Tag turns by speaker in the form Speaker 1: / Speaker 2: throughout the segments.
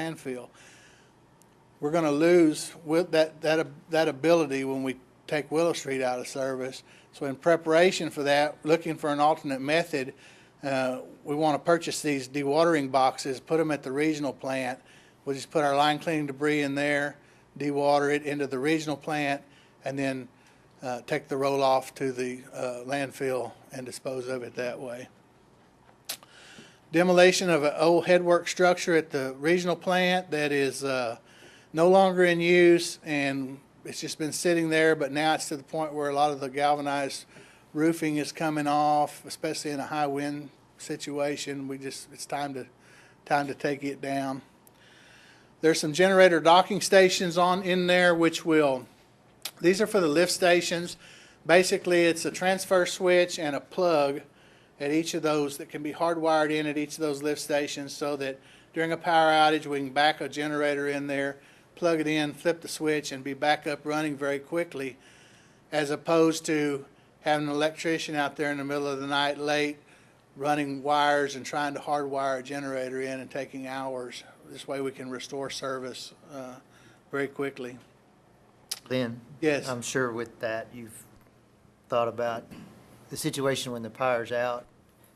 Speaker 1: landfill. We're gonna lose with that, that, ab- that ability when we take Willow Street out of service. So in preparation for that, looking for an alternate method, uh, we wanna purchase these dewatering boxes, put them at the regional plant. We'll just put our line cleaning debris in there, dewater it into the regional plant, and then, uh, take the roll off to the, uh, landfill and dispose of it that way demolition of an old headwork structure at the regional plant that is uh, no longer in use, and it's just been sitting there, but now it's to the point where a lot of the galvanized roofing is coming off, especially in a high wind situation. We just, it's time to, time to take it down. There's some generator docking stations on, in there, which will, these are for the lift stations. Basically, it's a transfer switch and a plug at each of those that can be hardwired in at each of those lift stations so that during a power outage, we can back a generator in there, plug it in, flip the switch, and be back up running very quickly, as opposed to having an electrician out there in the middle of the night late, running wires and trying to hardwire a generator in and taking hours. This way, we can restore service uh, very quickly.
Speaker 2: Lynn?
Speaker 1: Yes.
Speaker 2: I'm sure with that, you've thought about the situation when the power's out,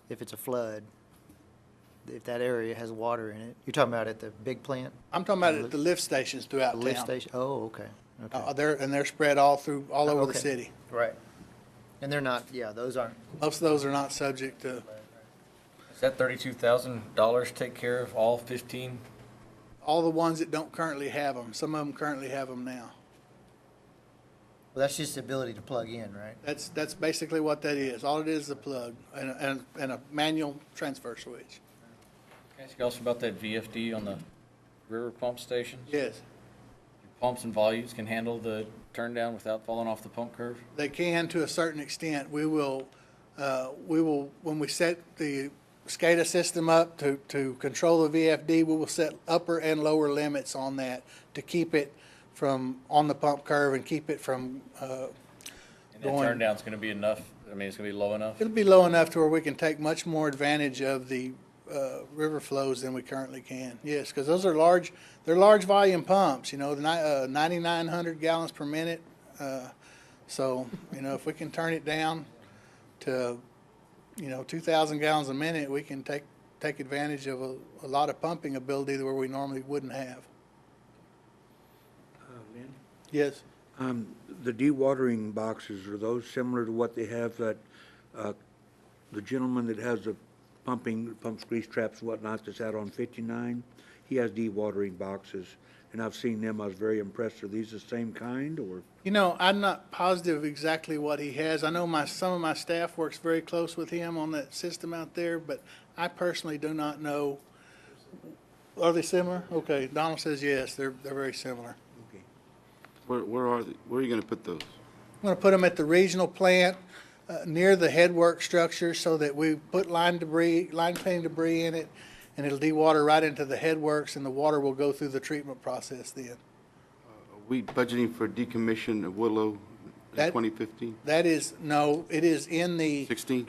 Speaker 2: if it's a flood, if that area has water in it. You're talking about at the big plant?
Speaker 1: I'm talking about at the lift stations throughout
Speaker 2: The
Speaker 1: town.
Speaker 2: lift station? Oh, okay,
Speaker 1: Uh,
Speaker 2: okay.
Speaker 1: they're, and they're spread all through, all over the
Speaker 2: Okay.
Speaker 1: city.
Speaker 2: Right. And they're not, yeah, those aren't,
Speaker 1: Most of those are not subject to,
Speaker 3: Does that thirty-two thousand dollars take care of all fifteen?
Speaker 1: all the ones that don't currently have them, some of them currently have them now.
Speaker 2: well, that's just the ability to plug in, right?
Speaker 1: That's, that's basically what that is. All it is is a plug and, a- and, and a manual transfer switch.
Speaker 3: Can I ask you also about that VFD on the river pump station?
Speaker 1: Yes,
Speaker 3: Pumps and volumes can handle the turn down without falling off the pump curve?
Speaker 1: they can to a certain extent. We will, uh, we will, when we set the SCADA system up to, to control the VFD, we will set upper and lower limits on that to keep it from, on the pump curve and keep it from, uh,
Speaker 3: And that
Speaker 1: Going-
Speaker 3: turn down's gonna be enough, I mean, it's gonna be low enough?
Speaker 1: It'll be low enough to where we can take much more advantage of the uh, river flows than we currently can. Yes, because those are large, they're large volume pumps, you know, the ni- uh, 9,900 gallons per minute. Uh, So, you know, if we can turn it down to, you know, 2,000 gallons a minute, we can take, take advantage of a a lot of pumping ability where we normally wouldn't have. Yes.
Speaker 4: Um, The dewatering boxes, are those similar to what they have that, uh, the gentleman that has the pumping, pumps grease traps and whatnot that's out on 59? He has dewatering boxes, and I've seen them. I was very impressed. Are these the same kind, or?
Speaker 1: You know, I'm not positive exactly what he has. I know my, some of my staff works very close with him on that system out there, but I personally do not know. Are they similar? Okay, Donald says yes, they're, they're very similar.
Speaker 5: Where, where are, the- where are you gonna put those?
Speaker 1: I'm gonna put them at the regional plant, uh, near the headwork structure so that we put line debris, line cleaning debris in it, and it'll dewater right into the headworks and the water will go through the treatment process then.
Speaker 5: Are we budgeting for decommission of Willow
Speaker 1: That-
Speaker 5: in 2015?
Speaker 1: That is, no, it is in the.
Speaker 5: 16?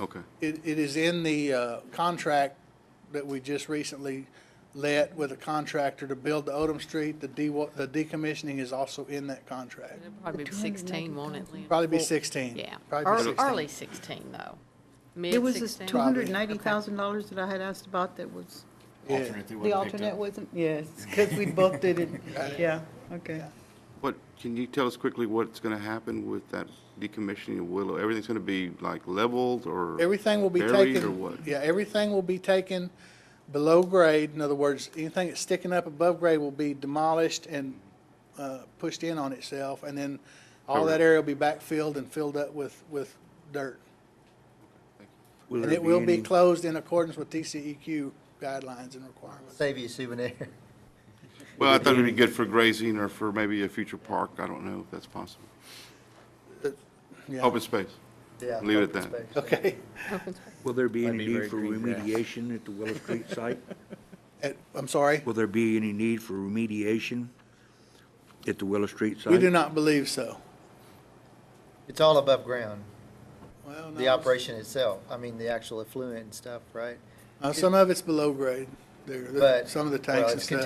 Speaker 5: Okay.
Speaker 1: It, it is in the uh, contract that we just recently let with a contractor to build the Odom Street. The de, the decommissioning is also in that contract.
Speaker 6: It'll probably be 16, won't it, Lynn?
Speaker 1: Probably be 16.
Speaker 6: Yeah,
Speaker 1: Probably
Speaker 6: early
Speaker 1: be
Speaker 6: early
Speaker 1: 16.
Speaker 6: 16, though.
Speaker 7: It was this
Speaker 6: Mid-16.
Speaker 7: two hundred and eighty thousand dollars that I had asked about that was,
Speaker 1: Yeah.
Speaker 7: the alternate wasn't, yes, because we booked it and, yeah, okay.
Speaker 5: What, can you tell us quickly what's gonna happen with that decommissioning of Willow? Everything's gonna be like leveled or?
Speaker 1: Everything will be taken.
Speaker 5: Buried or what?
Speaker 1: Yeah, everything will be taken below grade. In other words, anything that's sticking up above grade will be demolished and uh, pushed in on itself. And then all that area will be backfilled and filled up with, with dirt. And
Speaker 4: there
Speaker 1: it will be
Speaker 4: any-
Speaker 1: closed in accordance with TCEQ guidelines and requirements.
Speaker 2: Save you a souvenir.
Speaker 5: Well, I thought it'd be good for grazing or for maybe a future park. I don't know if that's possible.
Speaker 1: Yeah.
Speaker 5: Open space.
Speaker 2: Yeah,
Speaker 5: Leave it at
Speaker 2: open
Speaker 5: that.
Speaker 2: space.
Speaker 1: Okay.
Speaker 4: Will there be
Speaker 3: Might
Speaker 4: any
Speaker 3: be
Speaker 4: need
Speaker 3: very
Speaker 4: for
Speaker 3: green grass.
Speaker 4: remediation at the Willow Street site?
Speaker 1: At- I'm sorry?
Speaker 4: Will there be any need for remediation at the Willow Street site?
Speaker 1: We do not believe so.
Speaker 2: It's all above ground,
Speaker 1: Well, no,
Speaker 2: the operation itself. I mean, the actual effluent and stuff, right?
Speaker 1: uh, Some of it's below grade, there,
Speaker 2: But-
Speaker 1: some of the
Speaker 2: well,
Speaker 1: tanks and
Speaker 2: it's
Speaker 1: stuff.